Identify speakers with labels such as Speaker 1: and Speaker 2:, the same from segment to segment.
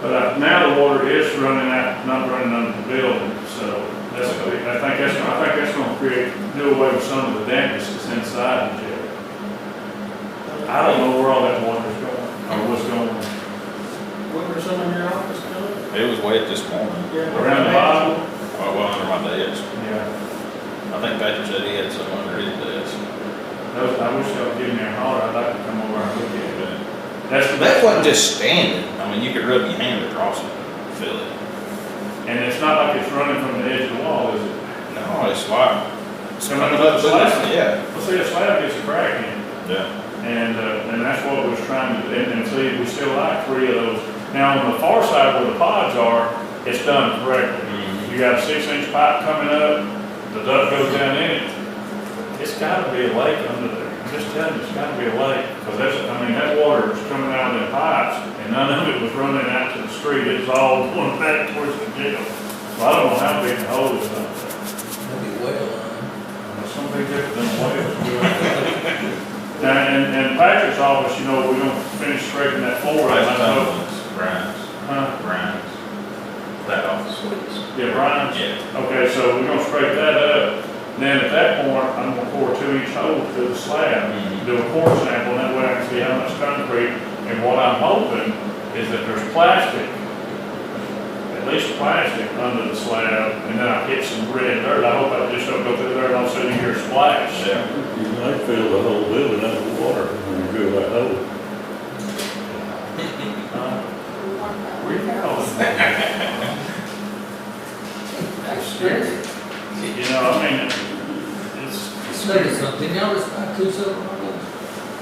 Speaker 1: But uh, now the water is running out, not running under the building, so that's, gonna be- I think that's, I think that's gonna create, do away with some of the dampness that's inside the jail. I don't know where all that water's going, or what's going on.
Speaker 2: What were some in your office doing?
Speaker 3: It was wet this morning,
Speaker 2: Yeah.
Speaker 1: Around the bottom?
Speaker 3: well, well, under my desk.
Speaker 1: Yeah.
Speaker 3: I think Patrick said he had some under his desk.
Speaker 1: Those, I wish y'all would give me a holler, I'd like to come over and look at it.
Speaker 3: But
Speaker 1: That's the
Speaker 3: That wasn't just standing, I mean, you could rub your hand across it, and feel it.
Speaker 1: And it's not like it's running from the edge of the wall, is it?
Speaker 3: No, it's like. It's
Speaker 1: Coming
Speaker 3: coming
Speaker 1: up the
Speaker 3: up,
Speaker 1: slab.
Speaker 3: yeah.
Speaker 1: Well, see, a slab gets a crack in, it,
Speaker 3: Yeah.
Speaker 1: and, uh, and that's what we're trying to, and, and see, we still like three of those. Now, on the far side where the pods are, it's done correctly.
Speaker 3: Mhm.
Speaker 1: You got a six-inch pipe coming up, the duct goes down in it. It's gotta be a lake under there, I'm just telling you, it's gotta be a lake, because that's, I mean, that water is coming out of the pipes, and none of it was running out to the street, it's all going back towards the jail. Well, I don't know how big the hole is up there.
Speaker 4: That'd be well, huh?
Speaker 1: Something different than what it was doing. Now, and, and Patrick's office, you know, we don't finish scraping that floor, I
Speaker 3: Right, that
Speaker 1: know.
Speaker 3: one's Grimes,
Speaker 1: Huh?
Speaker 3: Grimes. That office was.
Speaker 1: Yeah, Brian's.
Speaker 3: Yeah.
Speaker 1: Okay, so we're gonna scrape that up, then at that point, I'm gonna pour a two inch hole through the slab,
Speaker 3: Mhm.
Speaker 1: do a core sample, and that way I can see how much concrete, and what I'm hoping is that there's plastic, at least plastic under the slab, and then I hit some red dirt, I hope I just don't go through there and all of a sudden you hear a splash.
Speaker 3: Yeah.
Speaker 5: You might fill the whole building up with water when you drill that hole.
Speaker 1: Uh, Where you going?
Speaker 4: That's scary.
Speaker 1: You know, I mean, it's,
Speaker 4: It's scary something. Y'all just buy two separate ones.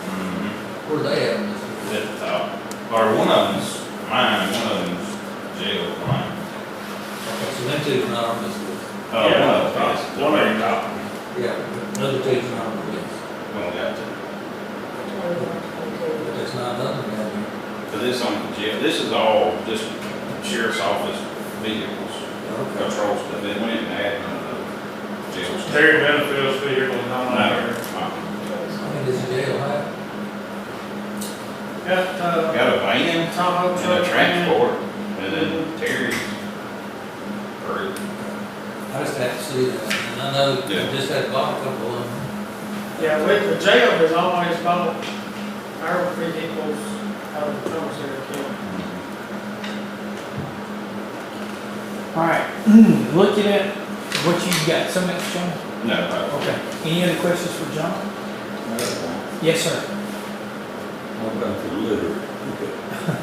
Speaker 3: Mhm.
Speaker 4: Where they at? on this?
Speaker 3: at the top. Or one of them's mine, one of them's jail, mine.
Speaker 4: Okay, so them two's not on this list.
Speaker 3: Uh, one of
Speaker 1: Yeah.
Speaker 3: them's.
Speaker 1: One of
Speaker 4: Yeah, another two's not on the list.
Speaker 3: Well, got to,
Speaker 4: But that's not nothing down here.
Speaker 3: cause this on the jail, this is all just sheriff's office vehicles,
Speaker 4: Okay.
Speaker 3: patrol stuff, they went in and added none of the jail stuff.
Speaker 1: Terry Benfield's vehicle is on
Speaker 3: No,
Speaker 1: there.
Speaker 3: uh,
Speaker 4: I mean, this jail, huh?
Speaker 2: Got, uh,
Speaker 3: Got a van
Speaker 2: Tahoe truck.
Speaker 3: and a
Speaker 2: man.
Speaker 3: transport, and then Terry's. Or,
Speaker 4: I just have to see that. And I know,
Speaker 3: Yeah.
Speaker 4: just had bought a couple of them.
Speaker 2: Yeah, with the jail has always bought our vehicles out of the commissary account.
Speaker 6: All right, looking at what you got, some extra, John?
Speaker 3: no, uh,
Speaker 6: Okay, any other questions for John? Yes, sir.
Speaker 5: What about the litter?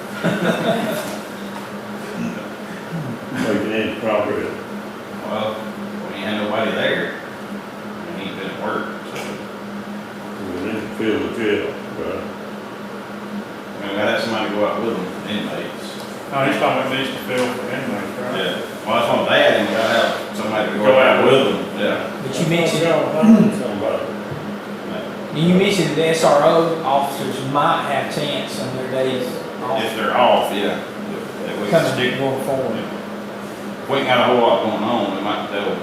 Speaker 5: Making any progress.
Speaker 3: well, we ain't had nobody there, we ain't been at work, so.
Speaker 5: We didn't fill the jail, right?
Speaker 3: I mean, that's somebody go out with them, inmates.
Speaker 1: No, Oh, he's talking about these to fill for inmates, right?
Speaker 3: Yeah. Well, that's what I'm saying, you gotta have somebody to go out with them, yeah.
Speaker 6: But you mentioned,
Speaker 5: Somebody.
Speaker 6: you mentioned the SRO officers might have chance on their days
Speaker 3: If
Speaker 6: off
Speaker 3: they're off, yeah. That we can
Speaker 6: coming,
Speaker 3: stick.
Speaker 6: going forward.
Speaker 3: If we ain't got a whole lot going on, we might tell a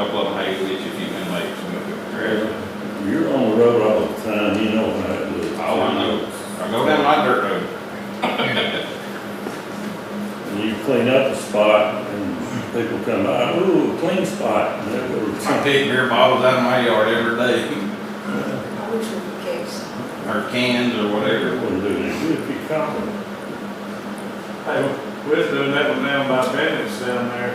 Speaker 3: couple of them, hey, we get you a few inmates, and we'll go grab
Speaker 5: You're on the road all the time, you know how it looks.
Speaker 3: All Oh, I know, I go down my dirt road.
Speaker 5: And you clean up a spot and people come by, ooh, clean spot, and that would.
Speaker 3: I pick beer bottles out of my yard every day,
Speaker 7: I wish we could get some.
Speaker 3: or cans or whatever.
Speaker 5: Wouldn't do any good if you caught them.
Speaker 1: Hey, we was doing that one down by Bennett's down there,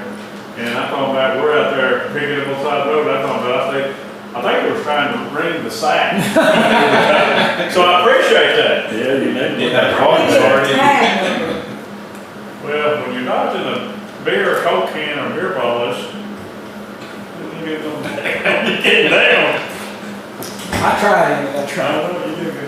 Speaker 1: and I thought about, we're out there picking up on side of the road, I thought about, I think, I think we were trying to ring the sack. So I appreciate that.
Speaker 5: Yeah, you know.
Speaker 3: Get that
Speaker 5: Oh,
Speaker 3: volume started.
Speaker 1: Well, when you're dodging a beer, or coke can, or beer bottles, you get them, you get down.
Speaker 6: I tried it, I tried.
Speaker 1: I know you do.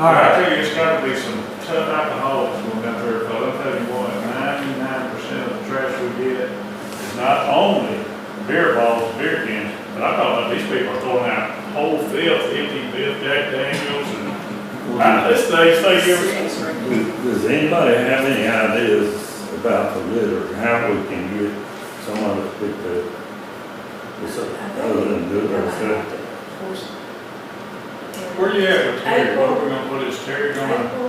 Speaker 6: All
Speaker 1: I
Speaker 6: right,
Speaker 1: tell you, it's gotta be some tough alcoholics going out there, but I'll tell you what, ninety-nine percent of the trash we get is not only beer bottles, beer cans, but I thought about these people are throwing out whole filth, empty filth, Jack Daniels, and, I, this thing, this thing, every-
Speaker 5: Does anybody have any ideas about the litter, how we can get someone to pick that? It's Other than Oh, do it ourselves?
Speaker 1: where you at with Terry? What are we gonna put, is Terry gonna?